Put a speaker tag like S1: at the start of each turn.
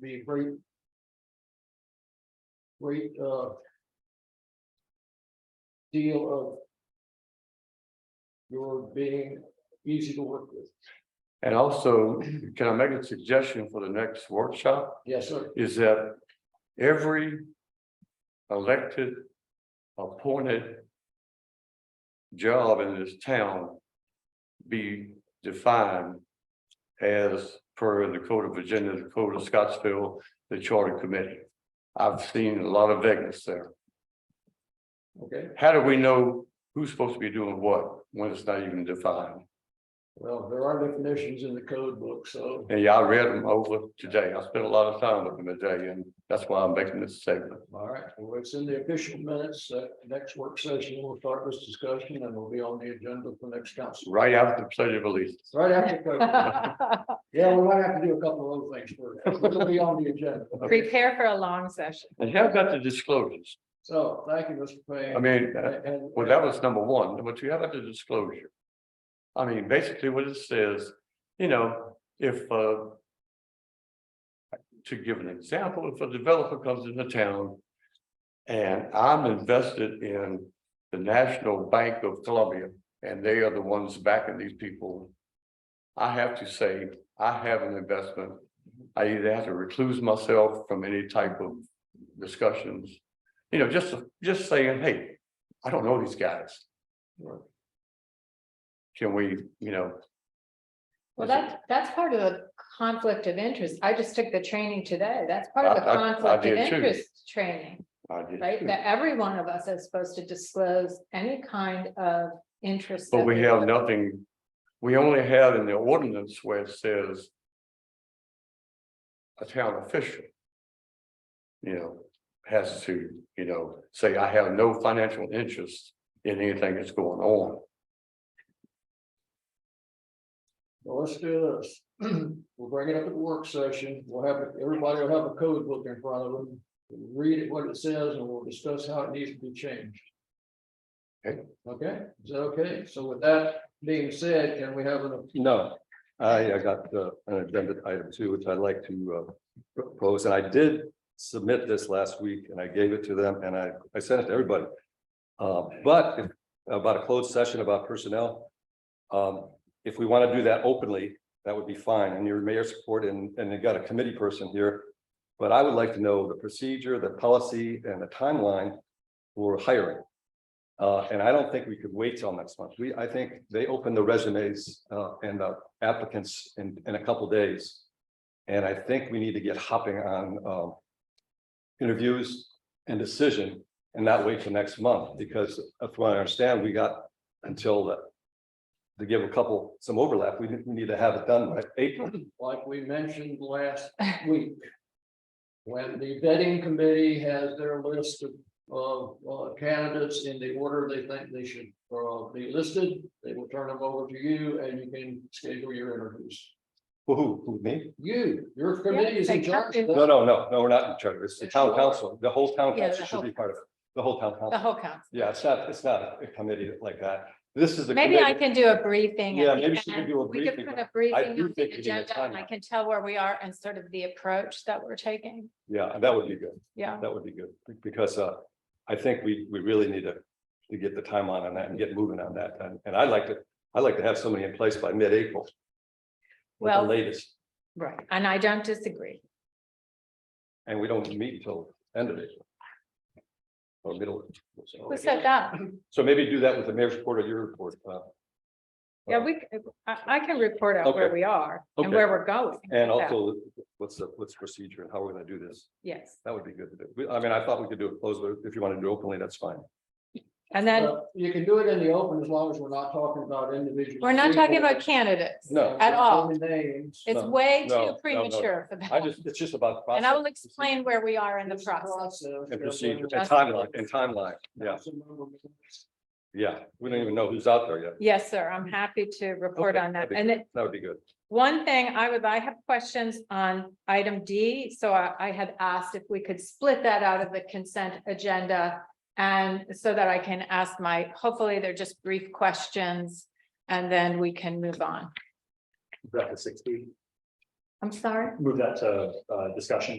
S1: be a great. Great, uh. Deal of. Your being easy to work with.
S2: And also, can I make a suggestion for the next workshop?
S1: Yes, sir.
S2: Is that every elected, appointed job in this town be defined as per the Code of Virginia, the Code of Scottsville, the Charter Committee. I've seen a lot of vagueness there.
S1: Okay,
S2: How do we know who's supposed to be doing what when it's not even defined?
S1: well, there are definitions in the code book, so.
S2: And yeah, I read them over today. I spent a lot of time with them today, and that's why I'm making this statement.
S1: All right, well, it's in the official minutes, uh, next work session, we'll start this discussion and it'll be on the agenda for next council.
S2: Right after the pledge of allegiance.
S1: Right after, COVID. yeah, we might have to do a couple of other things first, it'll be on the agenda.
S3: Prepare for a long session.
S2: And how about the disclosures?
S1: So, thank you, Mr. Payne.
S2: I mean, uh,
S1: And.
S2: well, that was number one. Number two, how about the disclosure? I mean, basically what it says, you know, if uh. To give an example, if a developer comes into town. And I'm invested in the National Bank of Columbia, and they are the ones backing these people. I have to say, I have an investment. I either have to recluse myself from any type of discussions. You know, just, just saying, hey, I don't know these guys. Can we, you know?
S3: Well,
S2: is it-
S3: that's, that's part of the conflict of interest. I just took the training today. That's part of the
S2: I- I- I
S3: conflict of
S2: did too.
S3: interest training,
S2: I did
S3: right?
S2: too.
S3: That every one of us is supposed to disclose any kind of interest.
S2: But
S3: that
S2: we have nothing, we only have in the ordinance where it says. A town official. You know, has to, you know, say, I have no financial interest in anything that's going on.
S1: Well, let's do this. We'll bring it up at the work session. We'll have, everybody will have a code book in front of them. Read it, what it says, and we'll discuss how it needs to be changed.
S2: Okay.
S1: Okay, is that okay? So with that being said, can we have an,
S4: No, I, I got uh, an agenda item too, which I'd like to uh, propose, and I did submit this last week, and I gave it to them, and I, I sent it to everybody. Uh, but if- about a closed session about personnel. Um, if we want to do that openly, that would be fine, and your mayor's support, and, and they got a committee person here. But I would like to know the procedure, the policy, and the timeline for hiring. Uh, and I don't think we could wait till next month. We, I think they open the resumes, uh, and the applicants in, in a couple days. And I think we need to get hopping on, um. Interviews and decision and not wait till next month, because if I understand, we got until the. To give a couple, some overlap, we, we need to have it done by April.
S1: like we mentioned last week? When the vetting committee has their list of, of uh, candidates in the order they think they should, uh, be listed, they will turn them over to you and you can schedule your interviews.
S4: Who, who, me?
S1: You, your committee is in
S3: they have
S1: charge.
S3: to-
S1: of
S4: No,
S1: that.
S4: no, no, no, we're not in charge. It's the town council. The whole town
S3: Yeah, the
S4: council should
S3: whole-
S4: be part of it. The whole town
S3: The
S4: council.
S3: whole council.
S4: Yeah, it's not, it's not a committee like that. This is the.
S3: Maybe I
S4: committee.
S3: can do a briefing. at
S4: Yeah,
S3: the
S4: maybe she can
S3: end.
S4: do a
S3: We could
S4: briefing,
S3: put
S4: but
S3: a briefing
S4: do
S3: on
S4: think
S3: the
S4: we need a
S3: agenda and I
S4: timeline.
S3: can tell where we are and sort of the approach that we're taking.
S4: Yeah, that would be good.
S3: Yeah.
S4: That would be good, because uh, I think we, we really need to, to get the timeline on that and get moving on that. And, and I'd like to, I'd like to have somebody in place by mid-April. at the
S3: Well,
S4: Latest,
S3: right. And I don't disagree.
S4: and we don't meet until end of April. Or middle. so-
S3: Who said that?
S4: So maybe do that with the mayor's report or your report. uh,
S3: Yeah, we, c- I, I can report out where
S4: Okay.
S3: we are and
S4: Okay.
S3: where we're going.
S4: And
S3: So,
S4: also, what's the, what's the procedure and how we're gonna do this?
S3: Yes,
S4: That would be good to do. We- I mean, I thought we could do it closed, but if you want to do it openly, that's fine.
S3: and then
S1: Well, You can do it in the open as long as we're not talking about individuals.
S3: we're not talking about candidates.
S4: No.
S3: At all.
S1: Names.
S3: It's
S4: no,
S3: way
S4: no, no,
S3: too
S4: no.
S3: premature for
S4: I
S3: that.
S4: just, it's just about.
S3: And I will
S4: process.
S3: explain where we are in the
S1: This
S3: process.
S4: And
S1: that's
S4: procedure
S1: in
S4: and timeline and timeline. Yeah,
S1: council member minutes.
S4: yeah. We don't even know who's out there yet.
S3: Yes, sir. I'm happy to report
S4: Okay,
S3: on that.
S4: that'd be
S3: And then
S4: That would be good.
S3: one thing I would, I have questions on item D. So I, I had asked if we could split that out of the consent agenda. And so that I can ask my, hopefully they're just brief questions and then we can move on.
S4: That is sixteen.
S5: I'm sorry?
S1: move that to, uh, discussion